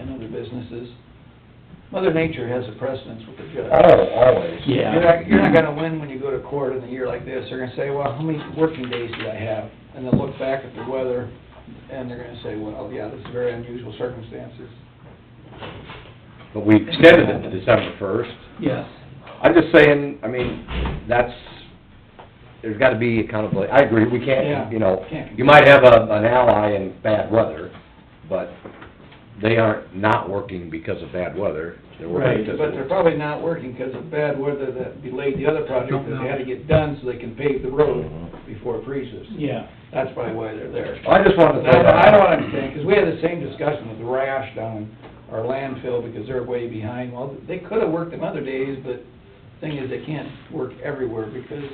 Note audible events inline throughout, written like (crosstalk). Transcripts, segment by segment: other businesses. Mother Nature has a precedence with the judge. Oh, always. Yeah. You're not, you're not gonna win when you go to court in a year like this, they're gonna say, well, how many working days did I have? And they'll look back at the weather, and they're gonna say, well, yeah, this is very unusual circumstances. But we extended it to December first. Yes. I'm just saying, I mean, that's, there's gotta be accountability. I agree, we Yeah. can't, you know, Can't. you might have a, an ally in bad weather, but they aren't not working because of bad weather. They're working Right, because But they're of... probably not working because of bad weather that delayed the other project that they had to get done so they can pave the road Mm-hmm. before it freezes. Yeah. That's probably why they're there. I just wanted to That's say what that. I don't understand, because we had the same discussion with the rash down in our landfill because they're way behind. Well, they could have worked them other days, but thing is, they can't work everywhere because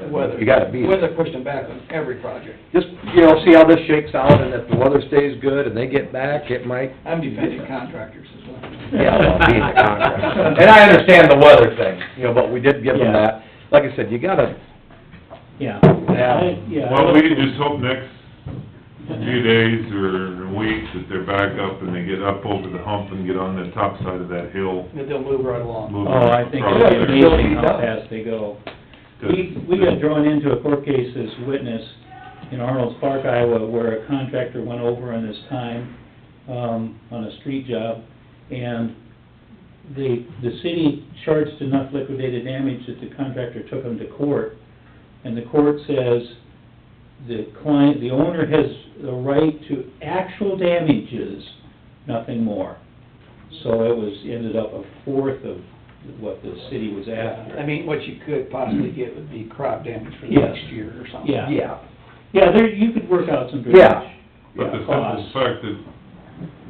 the weather. You gotta be there. Weather pushed them back on every project. Just, you know, see how this shakes out, and if the weather stays good and they get back, it might... I'm defending contractors as well. Yeah, well, being a (laughs) contractor. And I understand the weather thing, you know, but we did give them Yeah. that. Like I said, you gotta, Yeah. Yeah. I- Yeah. Well, we can just hope next few days or a week that they're back up and they get up over the hump and get on the top side of that hill. But they'll move right along. move Oh, I think across it'd there. be amazing how fast they go. 'Cause We, we got drawn into a court case as witness in Arnold's Park, Iowa, where a contractor went over on his time, um, on a street job, and the, the city charged enough liquidated damage that the contractor took him to court, and the court says the client, the owner has the right to actual damages, nothing more. So it was, ended up a fourth of what the city was after. I mean, what you could possibly get would be crop damage for the Yes. next year or something. Yeah. yeah, Yeah, there, you could work out some drainage. Yeah. But the simple costs. fact that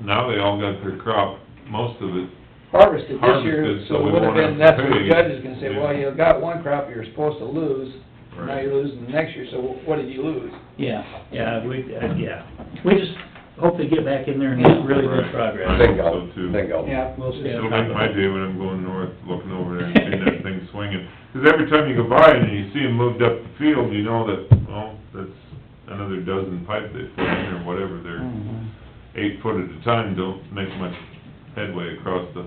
now they all got their crop, most of it, harvested this year, Harvested, so so we it would have won't been, have that's to what the pay. judge is gonna say, well, Yeah. you got one crop you're supposed to lose, now Right. you're losing the next year, so what did you lose? Yeah, yeah, we, uh, yeah. We just hope they get back in there and make really good Right. progress. bingo, So too. bingo. Yeah. We'll stay it'll on make my top of it. day when I'm going north, looking over there and seeing that thing swinging. 'Cause every time you go by and you see them moved up the field, you know that, well, that's another dozen pipe they put in or whatever, they're Mm-hmm. eight foot at a time, don't make much headway across the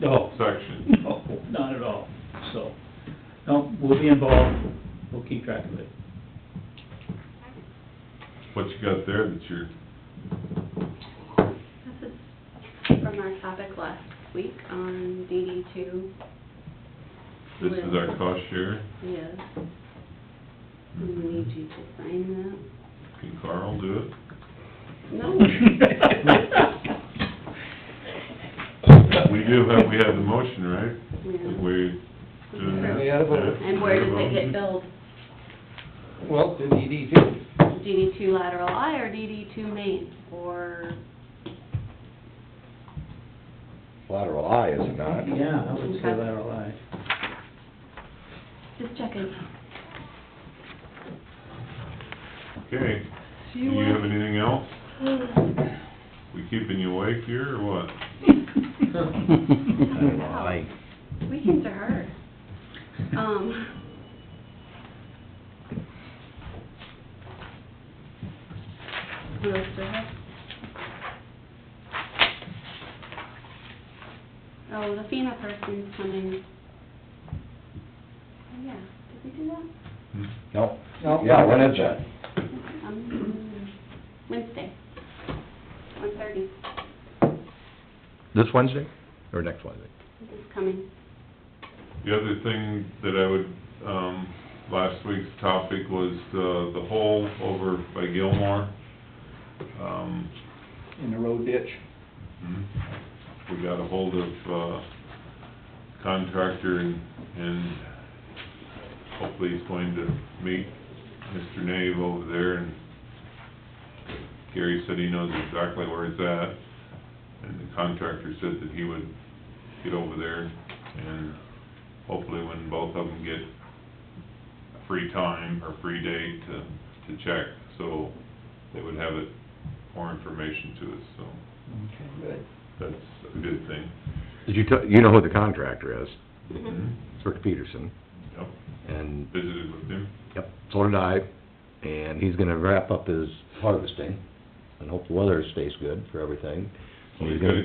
No, section. no, not at all, so, no, we'll be involved, we'll keep track of it. What you got there that you're, This is from our topic last week on DD two, this is our cost share, yes. We need you to sign can Carl do it? that. No. We do have, we have the motion, right? Yeah. We're doing that. Yeah, but- And where does it get billed? Well, to DD too. DD two lateral I or DD two main, or, Lateral eye, is it not? Yeah, I would say lateral eye. just checking. Okay, do you have anything else? We keeping you awake here, or what? (laughs) I don't know, I- Weekends are hard. Um. What else do I have? Oh, the FEMA person's coming. Oh, yeah, did we do that? No, No. yeah, when is that? Um, Wednesday, one thirty, This Wednesday, or next Wednesday? is coming. The other thing that I would, um, last week's topic was uh, the, the hole over by Gilmore. Um, In the road ditch. Mhm. We got a hold of uh, contractor and, and hopefully he's going to meet Mr. Nave over there and Gary said he knows exactly where it's at. And the contractor said that he would get over there and hopefully when both of them get free time or free day to, to check, so they would have it, more information to us, so. Okay, good. That's a good thing. Did you, you know who the contractor is? Mhm. It's Rick Peterson, Yep, and visited with him. Yep, so did I, and he's gonna wrap up his harvesting, and hope the weather stays good for everything. Well, he's gonna-